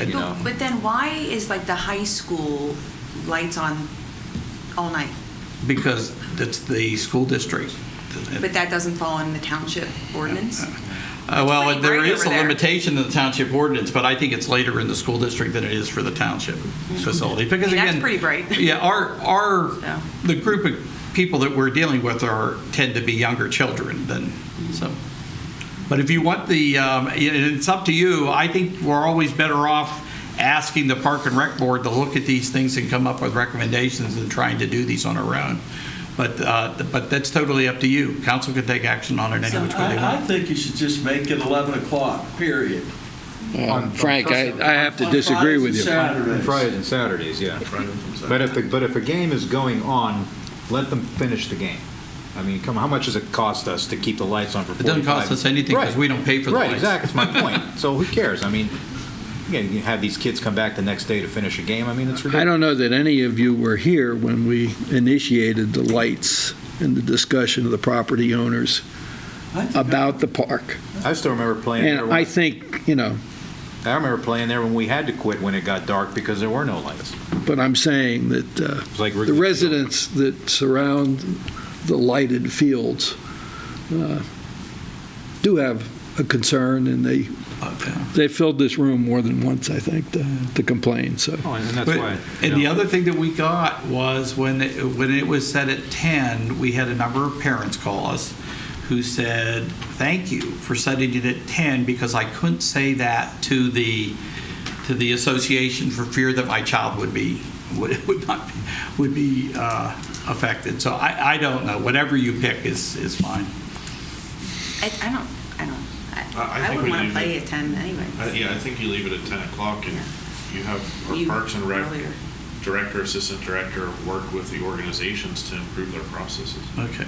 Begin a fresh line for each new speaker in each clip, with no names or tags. you know.
But then why is like the high school lights on all night?
Because it's the school district.
But that doesn't fall in the township ordinance?
Uh, Well,
pretty
there
bright
is a
over there.
limitation in the township ordinance, but I think it's later in the school district than it is for the township facility. Because
Mm-hmm. I mean,
again.
that's pretty bright.
Yeah, our, our,
So.
the group of people that we're dealing with are, tend to be younger children than,
Mm-hmm.
so. But if you want the, um, it- it's up to you. I think we're always better off asking the Park and Rec Board to look at these things and come up with recommendations than trying to do these on our own. But, uh, but that's totally up to you. Council can take action on it any which way they
I, I
want.
think you should just make it 11 o'clock, period.
Um, Frank, I, I have to
On
disagree with you.
Fridays and
I
Saturdays.
Fridays and Saturdays, yeah. But if, the- but if a game is going on, let them finish the game. I mean, come, on, how much does it cost us to keep the lights on for
It
45?
doesn't cost us anything because
Right.
we don't pay for the
Right,
lights.
exactly, that's my point. So who cares? I mean, you know, you have these kids come back the next day to finish a game, I mean, it's ridiculous.
don't know that any of you were here when we initiated the lights and the discussion of the property owners
I think
about the park.
I still remember playing there,
And I
when-
think, you know,
I remember playing there when we had to quit when it got dark because there were no lights.
but I'm saying that uh,
It's like
the residents that surround the lighted fields uh, do have a concern, and they,
Okay.
they filled this room more than once, I think, to- to complain, so.
Oh, and that's
But-
why.
And the other thing that we got was when it, when it was set at 10, we had a number of parents call us who said, "Thank you for setting it at 10 because I couldn't say that to the to the association for fear that my child would be would, would not would be uh, affected." So I, I don't know. Whatever you pick is is fine.
I, I don't, I don't,
I-
I,
I
I
think
wouldn't
we
want to
leave
play
it.
at ten
I-
anyway.
Yeah, I think you leave it at 10 o'clock, and you have
You-
our Parks and Rec
earlier.
Director, Assistant Director work with the organizations to improve their processes.
Okay.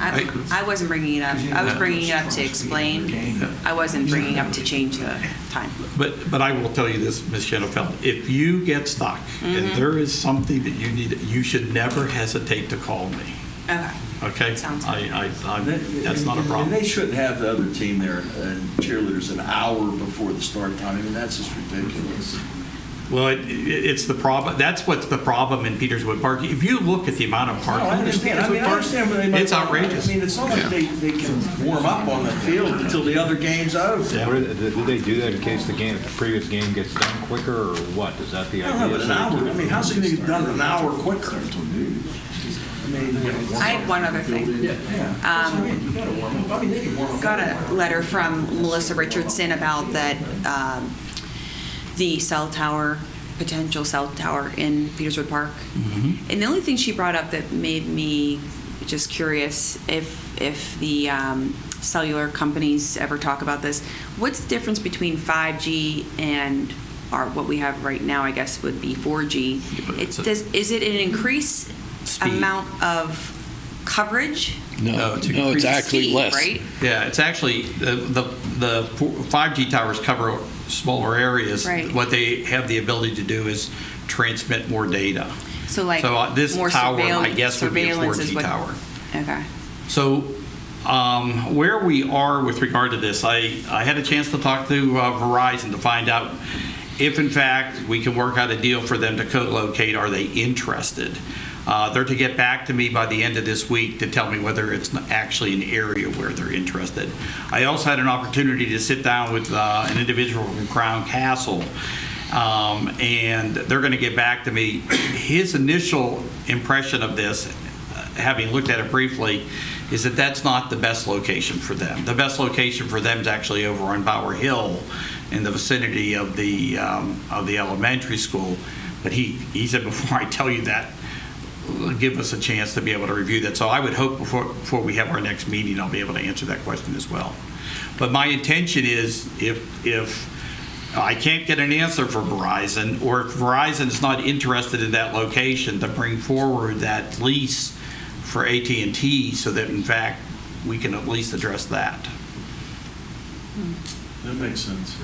I, I wasn't bringing it up. I was bringing it up to explain. I wasn't bringing up to change the time.
But, but I will tell you this, Ms. Shenanfeld, if you get stuck
Mm-hmm.
and there is something that you need, you should never hesitate to call me,
Okay.
okay?
Sounds good.
I, I, I'm-
that-
that's not a
and- And
problem.
they shouldn't have the other team there and cheerleaders an hour before the start time. I mean, that's just ridiculous.
Well, it, it- it's the problem, that's what's the problem in Peterswood Park. If you look at the amount of
No,
parking.
I understand. I mean, I understand where they might.
It's outrageous.
I mean, it's not like they, they can warm up on the field until the other game's over.
Yeah.
What Did did they do that in case the game, the previous game gets done quicker, or what? Is that the
I
idea?
don't know, but an hour, I mean, how's it gonna get done an hour quicker? I mean,
I have one other thing. Um,
yeah. That's what I mean. You gotta warm up. I mean, they can warm up.
Got a letter from Melissa Richardson about that, um, the cell tower, potential cell tower in Peterswood Park.
Mm-hmm.
And the only thing she brought up that made me just curious, if, if the um, cellular companies ever talk about this, what's the difference between 5G and, or what we have right now, I guess, would be 4G? It
It's a-
does, is it an increased
Speed.
amount of coverage?
No, to
No,
increase
it's
the
actually
Speed,
less.
Right?
Yeah, it's actually, the, the the 5G towers cover smaller areas.
Right.
What they have the ability to do is transmit more data.
So like
So uh, this
more
tower, I
surveil-
guess, would be a
surveillance is
4G
what-
tower.
Okay.
So, um, where we are with regard to this, I, I had a chance to talk to uh, Verizon to find out if, in fact, we can work out a deal for them to co-locate. Are they interested? Uh, they're to get back to me by the end of this week to tell me whether it's n- actually an area where they're interested. I also had an opportunity to sit down with uh, an individual from Crown Castle, um, and they're going to get back to me. His initial impression of this, having looked at it briefly, is that that's not the best location for them. The best location for them is actually over on Bower Hill in the vicinity of the, um, of the elementary school. But he, he said, before I tell you that, give us a chance to be able to review that. So I would hope before, before we have our next meeting, I'll be able to answer that question as well. But my intention is if, if I can't get an answer for Verizon, or if Verizon is not interested in that location, to bring forward that lease for AT&T so that in fact, we can at least address that.
That makes sense.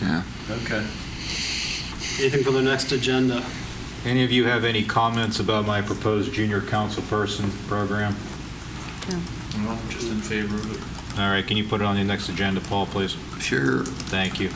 Yeah. Okay.
Anything for the next agenda?
Any of you have any comments about my proposed junior council person program?
I'm just in favor of it.
All right, can you put it on the next agenda, Paul, please?
Sure.
Thank you.